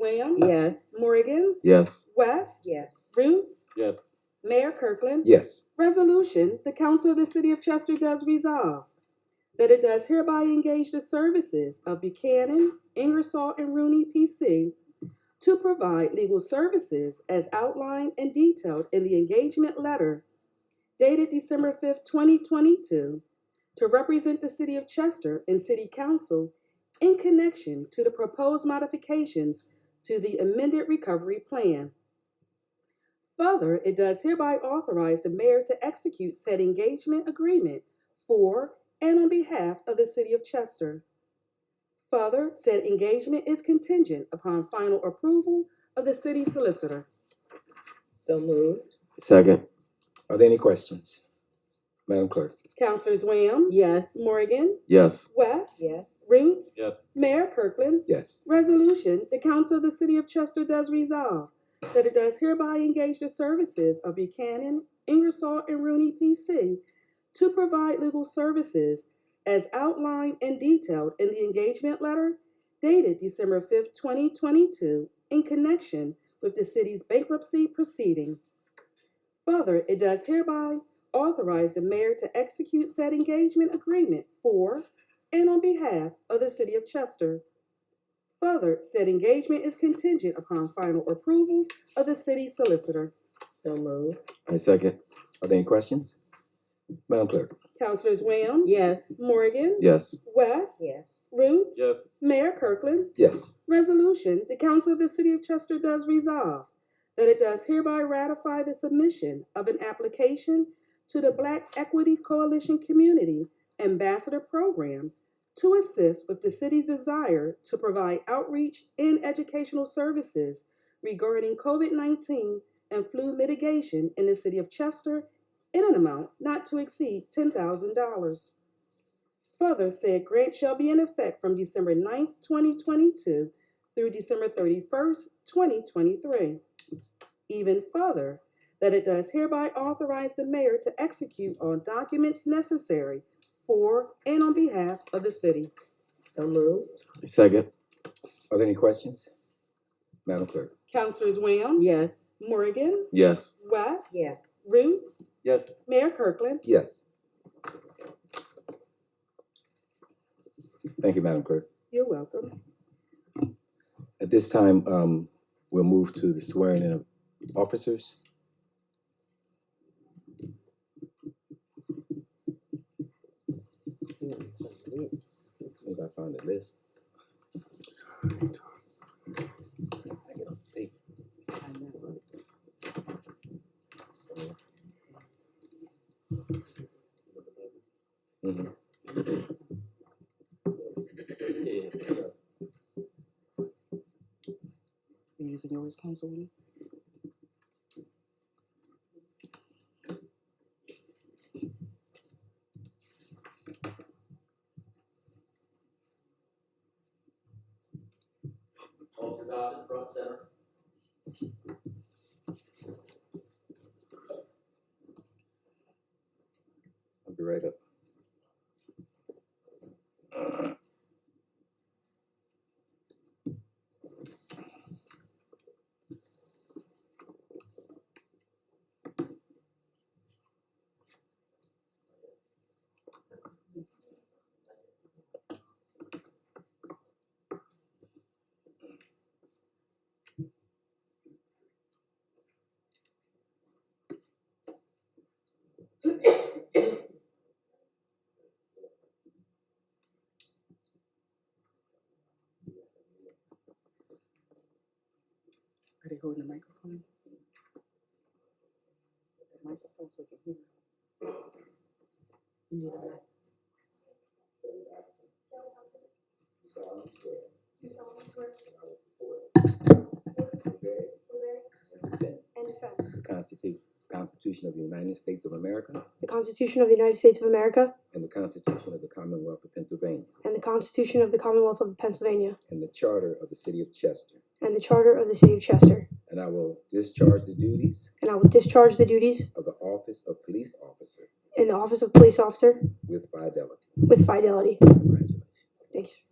Williams. Yes. Morgan. Yes. West. Yes. Roots. Yes. Mayor Kirkland. Yes. Resolution, the Council of the City of Chester does resolve that it does hereby engage the services of Buchanan, Ingersoll, and Rooney, P.C. to provide legal services as outlined and detailed in the engagement letter dated December 5th, 2022, to represent the City of Chester and City Council in connection to the proposed modifications to the amended recovery plan. Further, it does hereby authorize the mayor to execute said engagement agreement for and on behalf of the city of Chester. Further, said engagement is contingent upon final approval of the city solicitor. So moved. Second. Are there any questions? Madam Clerk? Councilors Williams. Yes. Morgan. Yes. West. Yes. Roots. Yes. Mayor Kirkland. Yes. Resolution, the Council of the City of Chester does resolve that it does hereby engage the services of Buchanan, Ingersoll, and Rooney, P.C. to provide legal services as outlined and detailed in the engagement letter dated December 5th, 2022, in connection with the city's bankruptcy proceeding. Further, it does hereby authorize the mayor to execute said engagement agreement for and on behalf of the City of Chester. Further, said engagement is contingent upon final approval of the city solicitor. So moved. I second. Are there any questions? Madam Clerk? Councilors Williams. Yes. Morgan. Yes. West. Yes. Roots. Mayor Kirkland. Yes. Resolution, the Council of the City of Chester does resolve that it does hereby ratify the submission of an application to the Black Equity Coalition Community Ambassador Program to assist with the city's desire to provide outreach and educational services regarding COVID 19 and flu mitigation in the City of Chester in an amount not to exceed $10,000. Further, said grant shall be in effect from December 9th, 2022 through December 31st, 2023. Even further, that it does hereby authorize the mayor to execute on documents necessary for and on behalf of the city. So moved. I second. Are there any questions? Madam Clerk? Councilors Williams? Yes. Morgan? Yes. West? Yes. Roots? Yes. Mayor Kirkland? Yes. Thank you, Madam Clerk. You're welcome. At this time, um, we'll move to the swearing in of officers. As soon as I find the list. Mm-hmm. Mhm. You using yours, Councilwoman? Officer Dodson, front center. I'll be right up. Are they holding the microphone? The microphone so they can hear. You need a mic. And defend The Constitu- Constitution of the United States of America the Constitution of the United States of America and the Constitution of the Commonwealth of Pennsylvania and the Constitution of the Commonwealth of Pennsylvania and the Charter of the City of Chester. and the Charter of the City of Chester. And I will discharge the duties And I will discharge the duties of the office of police officer in the office of police officer with fidelity. with fidelity. Congratulations. Thank you.